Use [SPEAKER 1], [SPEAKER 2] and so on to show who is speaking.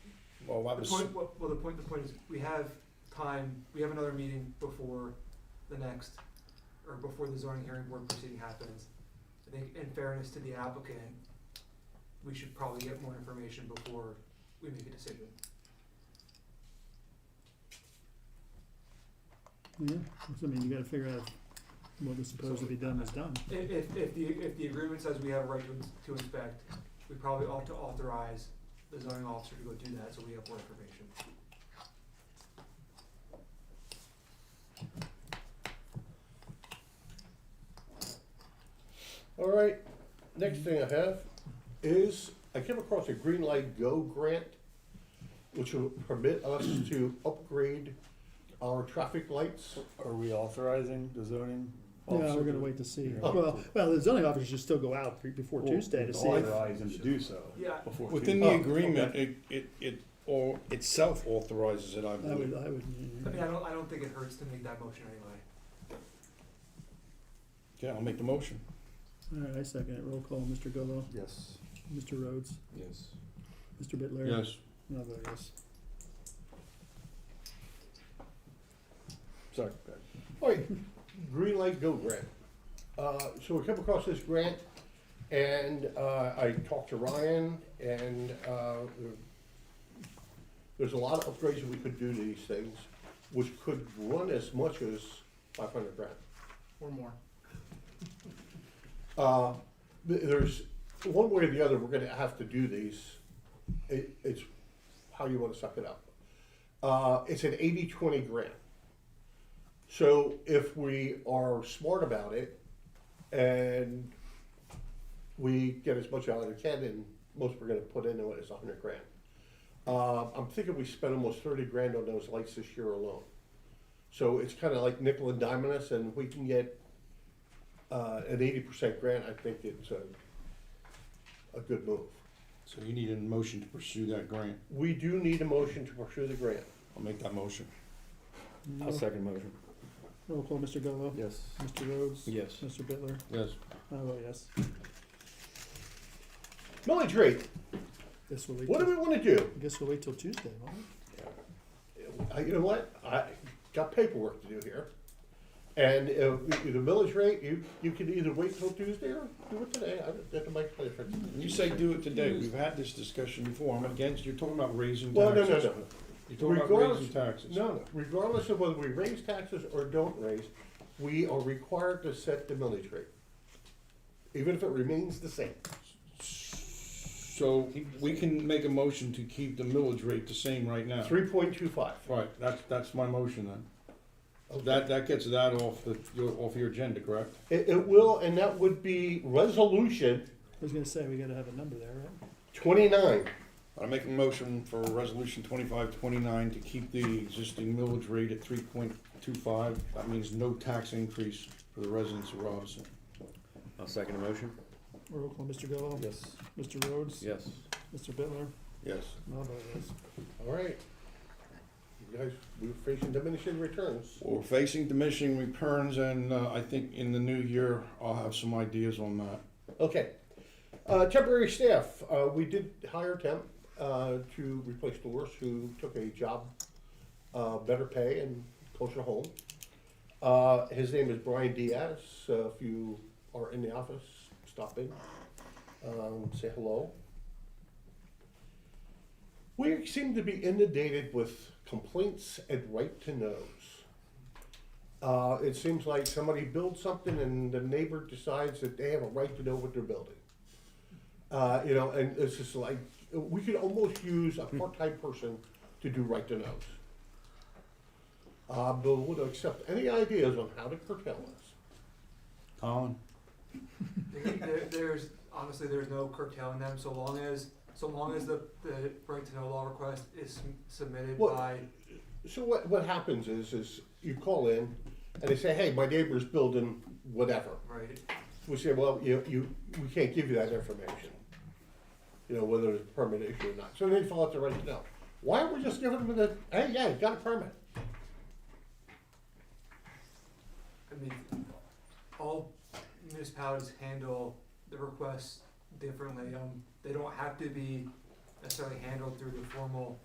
[SPEAKER 1] Well, I
[SPEAKER 2] The
[SPEAKER 1] was,
[SPEAKER 2] point, well, well, the point, the point is, we have time, we have another meeting before the next, or before the zoning hearing board proceeding happens. I think in fairness to the applicant, we should probably get more information before we make a decision.
[SPEAKER 3] Yeah, I mean, you gotta figure out what is supposed to be done is done.
[SPEAKER 2] I- If, if the, if the agreement says we have a right to, ins- to inspect, we probably ought to authorize the zoning officer to go do that, so we have more information.
[SPEAKER 1] all right, next thing I have is, I came across a Green Light Go grant, which will permit us to upgrade our traffic lights.
[SPEAKER 4] Are we authorizing the zoning?
[SPEAKER 3] Yeah,
[SPEAKER 4] officer
[SPEAKER 3] we're gonna
[SPEAKER 4] to-
[SPEAKER 3] wait to see.
[SPEAKER 4] Oh, Yeah.
[SPEAKER 3] Well, well, the zoning officers should still go out pre- before
[SPEAKER 4] Well,
[SPEAKER 3] Tuesday to
[SPEAKER 4] we'd
[SPEAKER 3] see. if-
[SPEAKER 4] Authorize him to do so.
[SPEAKER 2] Yeah,
[SPEAKER 4] before
[SPEAKER 5] Within
[SPEAKER 4] Tuesday.
[SPEAKER 5] the
[SPEAKER 1] Oh,
[SPEAKER 5] agreement, it, it, it, or itself authorizes it, I
[SPEAKER 3] I would,
[SPEAKER 5] believe.
[SPEAKER 3] I would,
[SPEAKER 2] I mean, I don't, I don't think it hurts to make that motion anyway.
[SPEAKER 5] Yeah, I'll make the motion.
[SPEAKER 3] all right, I second it. Roll call, Mr. Gallow,
[SPEAKER 4] Yes.
[SPEAKER 3] Mr. Rhodes,
[SPEAKER 5] Yes.
[SPEAKER 3] Mr. Bitler.
[SPEAKER 5] Yes.
[SPEAKER 3] And I'll vote yes.
[SPEAKER 5] Sorry.
[SPEAKER 1] All right, Green Light Go grant. Uh, so we came across this grant and, uh, I talked to Ryan and, uh, there's a lot of upgrades that we could do to these things, which could run as much as five hundred grand.
[SPEAKER 6] or more.
[SPEAKER 1] Uh, th- there's, one way or the other, we're gonna have to do these. It, it's how you wanna suck it up. Uh, it's an eighty-twenty grant. So if we are smart about it and we get as much out as we can, and most we're gonna put into it is a hundred grand. Uh, I'm thinking we spent almost thirty grand on those lights this year alone. So it's kinda like nickel and diming us, and we can get uh, an eighty percent grant, I think it's a, a good move.
[SPEAKER 5] So you need a motion to pursue that grant.
[SPEAKER 1] We do need a motion to pursue the grant.
[SPEAKER 5] I'll make that motion.
[SPEAKER 4] I'll second motion.
[SPEAKER 3] Roll call, Mr. Gallow,
[SPEAKER 4] Yes.
[SPEAKER 3] Mr. Rhodes,
[SPEAKER 5] Yes.
[SPEAKER 3] Mr. Bitler.
[SPEAKER 5] Yes.
[SPEAKER 3] I vote yes.
[SPEAKER 1] Millage rate,
[SPEAKER 3] This will wait,
[SPEAKER 1] what do
[SPEAKER 3] till-
[SPEAKER 1] we wanna do?
[SPEAKER 3] I guess we'll wait till Tuesday, won't we?
[SPEAKER 1] I- You know what, I got paperwork to do here. And if, if the millage rate, you, you can either wait till Tuesday or do it today, I don't, that make a difference.
[SPEAKER 5] You say do it today. We've had this discussion before. I'm against, you're talking about raising
[SPEAKER 1] Well, no,
[SPEAKER 5] taxes.
[SPEAKER 1] no, no,
[SPEAKER 5] You're talking about
[SPEAKER 1] Regardless-
[SPEAKER 5] raising taxes.
[SPEAKER 1] no, no, regardless of whether we raise taxes or don't raise, we are required to set the millage rate. Even if it remains the same.
[SPEAKER 5] So we can make a motion to keep the millage rate the same right now.
[SPEAKER 1] Three point two five.
[SPEAKER 5] Right, that's, that's my motion then. That, that gets that off the, your, off your agenda, correct?
[SPEAKER 1] It, it will, and that would be resolution
[SPEAKER 3] I was gonna say, we gotta have a number there, right?
[SPEAKER 1] twenty-nine.
[SPEAKER 5] I make a motion for resolution twenty-five twenty-nine to keep the existing millage rate at three point two five. That means no tax increase for the residents of Robinson.
[SPEAKER 4] I'll second the motion.
[SPEAKER 3] Roll call, Mr. Gallow,
[SPEAKER 4] Yes.
[SPEAKER 3] Mr. Rhodes,
[SPEAKER 4] Yes.
[SPEAKER 3] Mr. Bitler,
[SPEAKER 5] Yes.
[SPEAKER 3] and I'll vote yes.
[SPEAKER 1] All right. You guys, we're facing diminishing returns.
[SPEAKER 5] We're facing diminishing returns and, uh, I think in the new year, I'll have some ideas on that.
[SPEAKER 1] Okay. Uh, temporary staff, uh, we did hire temp, uh, to replace Doris, who took a job, uh, better pay and closer to home. Uh, his name is Brian Diaz, uh, if you are in the office, stop in, um, say hello. We seem to be inundated with complaints and right-to-knows. Uh, it seems like somebody builds something and the neighbor decides that they have a right to know what they're building. Uh, you know, and it's just like, we could almost use a part-time person to do right to knows. Uh, but would accept any ideas on how to curtail us.
[SPEAKER 5] Colin?
[SPEAKER 2] There, there's, honestly, there's no curtailing them, so long as, so long as the, the right to know law request is sum- submitted
[SPEAKER 1] Well-
[SPEAKER 2] by,
[SPEAKER 1] So what, what happens is, is you call in and they say, hey, my neighbor's building whatever.
[SPEAKER 2] right?
[SPEAKER 1] We say, well, you, you, we can't give you that information. You know, whether it's a permit issue or not. So they fill out the right to know. Why aren't we just giving them the, hey, yeah, you got a permit?
[SPEAKER 2] I mean, all municipalities handle the requests differently, um, they don't have to be necessarily handled through the formal